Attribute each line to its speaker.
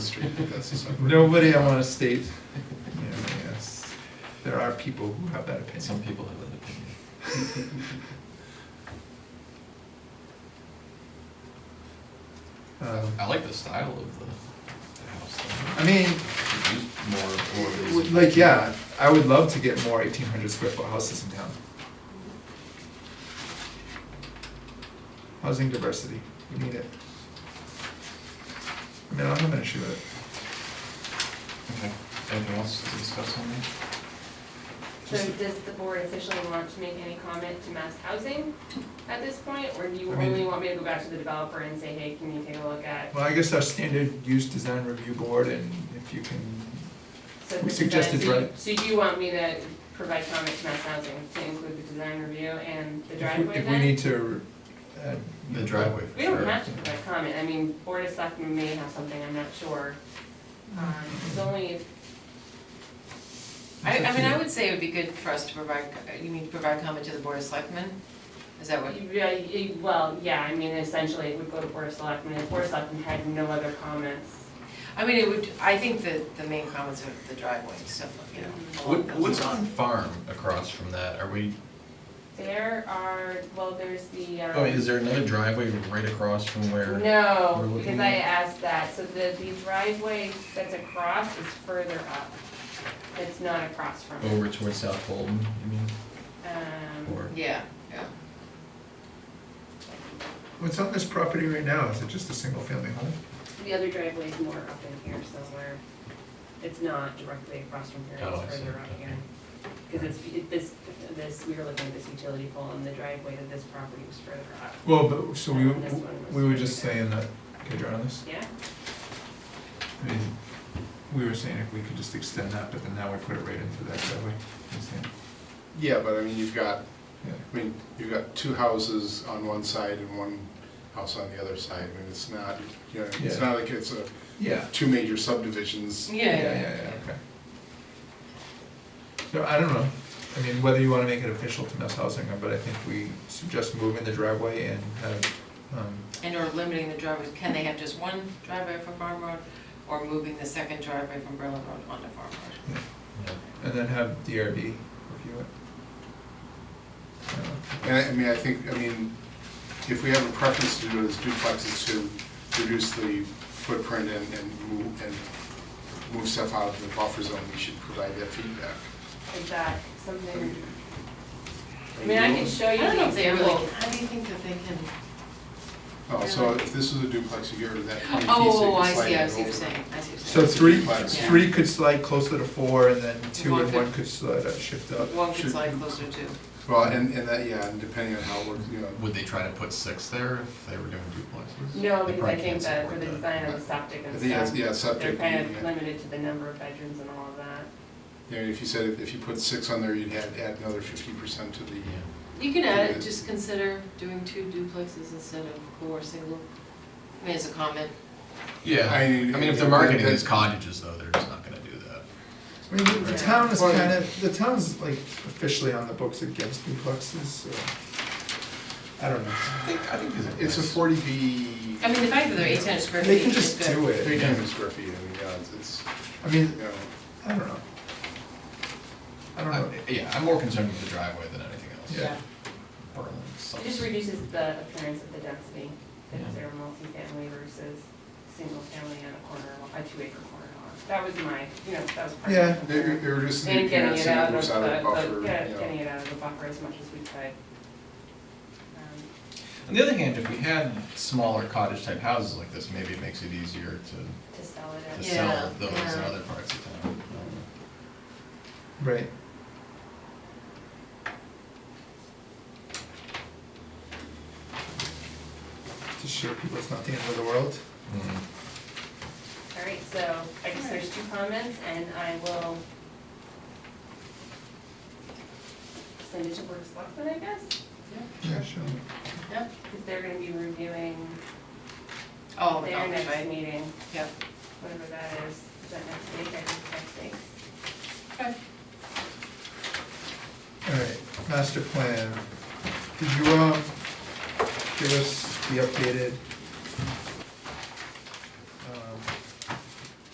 Speaker 1: Street, but that's a separate.
Speaker 2: Nobody I wanna state, you know, yes, there are people who have that opinion.
Speaker 3: Some people have that opinion.
Speaker 2: Um,
Speaker 3: I like the style of the, the house.
Speaker 2: I mean,
Speaker 3: Could use more more of
Speaker 2: w-
Speaker 3: these.
Speaker 2: like, yeah, I would love to get more eighteen hundred square foot houses in town. Housing diversity, we need it. I mean, I don't have an issue with it.
Speaker 3: Okay, anything else to discuss on that?
Speaker 4: So does the board officially want to make any comment to mass housing at this point? Or do you
Speaker 2: I mean-
Speaker 4: only want me to go back to the developer and say, hey, can you take a look at?
Speaker 2: Well, I guess our standard use design review board, and if you can,
Speaker 4: so
Speaker 2: we
Speaker 4: the design-
Speaker 2: suggested,
Speaker 4: so you-
Speaker 2: right.
Speaker 4: So you want me to provide comment to mass housing to include the design review and
Speaker 2: if
Speaker 4: the
Speaker 2: we,
Speaker 4: driveway
Speaker 2: if we
Speaker 4: then?
Speaker 2: need to, uh.
Speaker 3: The driveway for
Speaker 4: We don't
Speaker 3: sure.
Speaker 4: have to provide comment, I mean, board of selectmen may have something, I'm not sure. Um, It's only,
Speaker 5: I, I mean,
Speaker 2: Yeah.
Speaker 5: I would say it would be good for us to provide, uh, you mean provide comment to the board of selectmen? Is that what?
Speaker 4: yeah, you- well, yeah, I mean, essentially, it would go to board of selectmen, and board of selectmen had no other comments.
Speaker 5: I mean, it would, I think that the main comments are the driveway and stuff, like, you know. along
Speaker 3: What,
Speaker 5: those
Speaker 3: what's
Speaker 5: lines.
Speaker 3: on farm across from that? Are we,
Speaker 4: There are, well, there's the, um.
Speaker 3: oh, is there another driveway right across from where? we're
Speaker 4: No,
Speaker 3: looking
Speaker 4: because I
Speaker 3: at?
Speaker 4: asked that, so the, the driveway that's across is further up. It's not across from it.
Speaker 3: Over towards South Bolton, you mean,
Speaker 4: Um,
Speaker 3: or?
Speaker 5: Yeah, yeah.
Speaker 2: What's on this property right now, is it just a single family home?
Speaker 4: the other driveway is more up in here somewhere. It's not directly across from here,
Speaker 3: Oh, I
Speaker 4: it's
Speaker 3: see,
Speaker 4: further up
Speaker 3: okay.
Speaker 4: here. Because it's, it- this, this, we were looking at this utility pole and the driveway to this property was further up.
Speaker 2: Well, but, so we,
Speaker 4: This one was
Speaker 2: we were just
Speaker 4: further.
Speaker 2: saying that, okay, draw on this,
Speaker 4: Yeah,
Speaker 2: I mean, we were saying if we could just extend that, but then now we put it right into that driveway, You're saying,
Speaker 1: Yeah, but I mean, you've got,
Speaker 2: yeah.
Speaker 1: I mean, you've got two houses on one side and one house on the other side. I mean, it's not, you know,
Speaker 2: Yeah.
Speaker 1: it's not like it's a,
Speaker 2: Yeah,
Speaker 1: two major subdivisions.
Speaker 5: Yeah,
Speaker 2: yeah,
Speaker 5: yeah,
Speaker 2: yeah, yeah, okay. So I don't know, I mean, whether you wanna make it official to mass housing, or- but I think we suggest moving the driveway and have, um,
Speaker 5: And or limiting the driveway, can they have just one driveway for Farm Road, or moving the second driveway from Berlin Road onto Farm Road?
Speaker 3: Yeah.
Speaker 2: and then have DRB review it. I don't know.
Speaker 1: And I, I mean, I think, I mean, if we have a preference to do those duplexes to reduce the footprint and, and move, and move stuff out of the buffer zone, we should provide that feedback.
Speaker 4: is that
Speaker 1: I mean,
Speaker 4: something, I mean, I can show
Speaker 5: I
Speaker 4: you
Speaker 5: don't know
Speaker 4: the
Speaker 5: if they really,
Speaker 4: example.
Speaker 5: how do you think that they can?
Speaker 1: Oh, so if this is a duplex, you get rid of that. E piece, you
Speaker 5: Oh,
Speaker 1: can
Speaker 5: I
Speaker 1: slide
Speaker 5: see, I
Speaker 1: it
Speaker 5: see what you're
Speaker 1: over.
Speaker 5: saying, I see what you're saying.
Speaker 2: So three,
Speaker 1: Yeah.
Speaker 2: three could slide closer to four, and then two
Speaker 5: One
Speaker 2: and
Speaker 5: could-
Speaker 2: one could slide, uh, shift up.
Speaker 5: One could
Speaker 1: should-
Speaker 5: slide closer to,
Speaker 1: Well, and, and that, yeah, and depending on how it works, you know,
Speaker 3: Would they try to put six there if they were doing duplexes? They
Speaker 4: No, because I
Speaker 3: probably
Speaker 4: think
Speaker 3: can't
Speaker 4: that for
Speaker 3: support
Speaker 4: the design of the septic
Speaker 1: I
Speaker 4: and
Speaker 1: think it's,
Speaker 4: stuff,
Speaker 1: yeah,
Speaker 4: they're
Speaker 1: subject.
Speaker 4: kind of
Speaker 1: yeah.
Speaker 4: limited to the number of bedrooms and all of that.
Speaker 1: Yeah, if you said, if you put six on there, you'd add, add another fifty percent to the,
Speaker 3: Yeah.
Speaker 5: you can add, it. just consider doing two duplexes instead of four single, I mean, as a comment.
Speaker 3: Yeah,
Speaker 1: I
Speaker 3: I
Speaker 1: mean,
Speaker 3: mean, if they're marketing these cottages though, they're just not gonna do that.
Speaker 2: I mean, the- the town is
Speaker 1: Well-
Speaker 2: kind of, the town's like officially on the books against duplexes, so, I don't know.
Speaker 3: I think, I think these are.
Speaker 1: it's a
Speaker 3: nice.
Speaker 1: forty B.
Speaker 5: I mean, the fact that they're eight hundred square
Speaker 2: They can
Speaker 5: feet is
Speaker 2: just
Speaker 5: good.
Speaker 2: do
Speaker 1: Three
Speaker 2: it,
Speaker 1: hundred square feet, I mean, yeah, it's- it's,
Speaker 2: I mean,
Speaker 1: you know,
Speaker 2: I don't know. I don't
Speaker 3: I-
Speaker 2: know,
Speaker 3: Yeah, I'm more concerned with the driveway than anything else.
Speaker 2: Yeah.
Speaker 3: Berlin
Speaker 4: It
Speaker 3: sucks.
Speaker 4: just reduces the appearance of the density,
Speaker 3: Yeah.
Speaker 4: if they're multifamily versus single family on a corner, a two acre corner lot. That was my, you know, that was part
Speaker 2: Yeah.
Speaker 4: of the
Speaker 1: they're,
Speaker 4: concern.
Speaker 1: they're just the
Speaker 4: And getting
Speaker 1: appearance
Speaker 4: it
Speaker 1: and
Speaker 4: out
Speaker 1: it
Speaker 4: of
Speaker 1: moves
Speaker 4: the,
Speaker 1: out of the buffer,
Speaker 4: the,
Speaker 1: you
Speaker 4: yeah,
Speaker 1: know.
Speaker 4: getting it out of the buffer as much as we could. Um,
Speaker 3: On the other hand, if we had smaller cottage type houses like this, maybe it makes it easier
Speaker 4: To sell it
Speaker 3: to,
Speaker 4: as.
Speaker 3: to
Speaker 5: Yeah,
Speaker 3: sell those in
Speaker 5: yeah.
Speaker 3: other parts of town.
Speaker 2: right, to show people it's not the end of the world.
Speaker 3: Mhm.
Speaker 4: All right, so I guess there's two comments and I will send it to Board of Selectmen, I guess,
Speaker 2: Yeah, sure.
Speaker 5: Yeah,
Speaker 4: because they're gonna be reviewing
Speaker 5: oh,
Speaker 4: their
Speaker 5: okay,
Speaker 4: next
Speaker 5: right,
Speaker 4: meeting,
Speaker 5: yeah.
Speaker 4: whatever that is, is that next week, I think next week.
Speaker 5: Okay.
Speaker 2: Alright, master plan, did you, um, give us uh, the updated um,